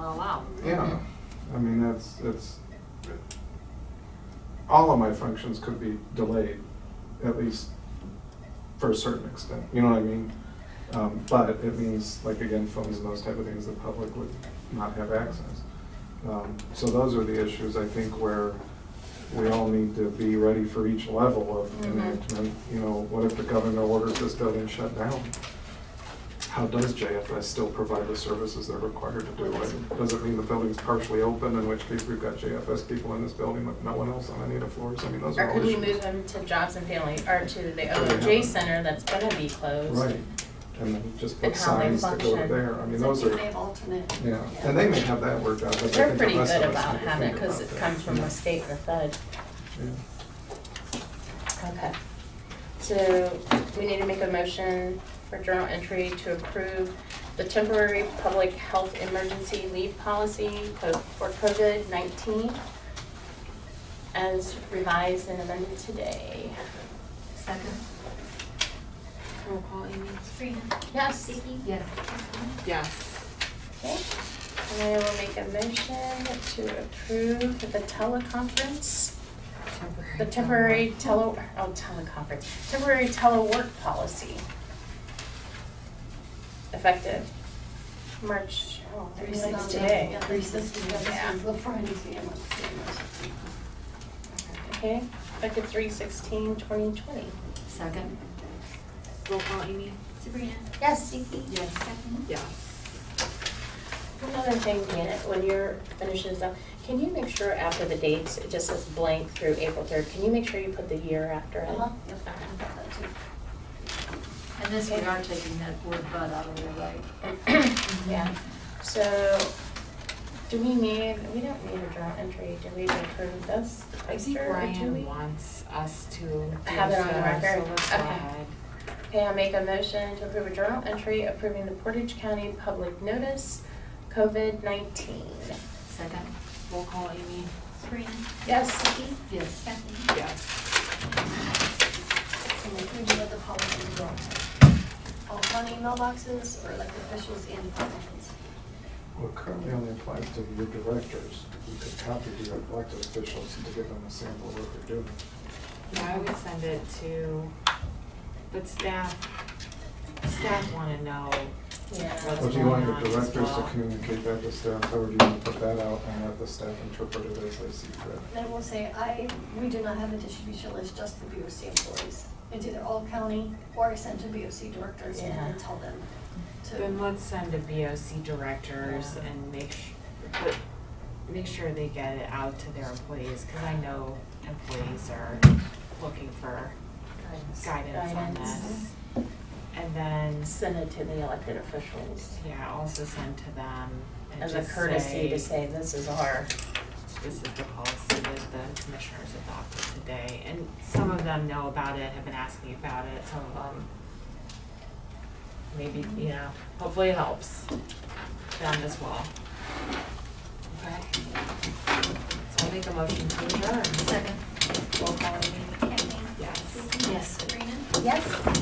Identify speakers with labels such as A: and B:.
A: well.
B: Yeah, I mean, that's, that's, all of my functions could be delayed, at least for a certain extent, you know what I mean? Um, but it means, like, again, phones and those type of things, the public would not have access. Um, so those are the issues, I think, where we all need to be ready for each level of
A: Mhm.
B: enactment. You know, what if the governor orders this building shut down? How does JFS still provide the services they're required to do? it? Does it mean the building's partially open, in which case we've got JFS people in this building with no one else on any of the floors? I mean, those are
A: Or
B: all
A: could we
B: issues.
A: move them to jobs and family, or to the OJ center that's gonna be closed?
B: Right, and then just put
A: And how they
B: signs that go
A: function.
B: to there. I mean,
C: So
B: those
C: do
B: are,
C: they have alternate?
B: yeah, and they may have that worked out, but I think
A: They're
B: the
A: pretty
B: rest
A: good
B: of us
A: about
B: need to
A: having it,
B: think
A: cause
B: about
A: it
B: that.
A: comes from
B: Yeah.
A: a state or fed.
B: Yeah.
A: Okay. So we need to make a motion for journal entry to approve the temporary public health emergency leave policy co- for COVID-19 as revised and amended today.
C: Second. Roll call, Amy.
D: Sabrina,
A: Yes.
D: Vicky,
C: Yes.
D: Kathleen,
C: Yes.
A: Okay, and I will make a motion to approve the teleconference, the temporary tele, oh, teleconference, temporary telework policy. Effective March, oh, I
C: Three
A: mean, it's
C: sisters.
A: today.
C: Yeah, Three sisters.
A: Yeah.
C: The Friday family.
A: Okay, effective three sixteen twenty twenty.
C: Second. Roll call, Amy.
D: Sabrina,
A: Yes.
D: Vicky,
C: Yes.
D: Kathleen,
C: Yes.
A: Another thing, Janet, when you're finishing this up, can you make sure after the dates, it just says blank through April third, can you make sure you put the year after it?
C: Uh-huh.
A: Okay.
E: And this, we are taking that word "but" out of there, right?
A: Yeah, Mm-hmm. so, do we need, we don't need a journal entry, do we approve this?
F: I think
A: Esther, or do we?
F: Brian wants us to do
A: Have it on the
F: so,
A: record.
F: so let's go
A: Okay.
F: ahead.
A: Okay, I make a motion to approve a journal entry approving the Portage County Public Notice, COVID-19.
E: Second,
C: Roll call, Amy.
D: Sabrina,
A: Yes,
D: Vicky,
E: yes.
D: Kathleen,
F: Yes.
C: And then do the policy go? All county mailboxes or like officials and departments?
B: Well, it currently only applies to your directors. You could copy the elected officials to give them a sample of what they're doing.
F: Yeah, I would send it to, but staff, staff wanna know.
A: yeah.
F: What's
B: Or do you want
F: going
B: your
F: on as
B: directors to
F: well?
B: communicate that to staff, How would you want to put that out and have the staff interpret it as they see fit?
C: Then we'll say, I, we do not have a distribution list, just the BOC employees. It's either all county or I send to BOC directors and then
A: Yeah.
C: tell them
F: Then
C: to.
F: let's send to BOC directors
A: Yeah.
F: and make su- but make sure they get it out to their employees, cause I know employees are looking for guidance on
A: Guidance.
F: this. And then,
A: Send it to the elected officials
F: yeah, also send to them and
A: as a
F: just
A: courtesy to say, this is our,
F: this is the policy that the commissioners adopted today. And some of them know about it, have been asking about it, some of them maybe, you know, hopefully it helps them as well. Okay? So I'll make a motion to adjourn.
E: Second,
F: Roll call, Amy?
D: Kathleen,
F: Yes.
D: Vicky,
E: yes.
D: Sabrina,
A: yes,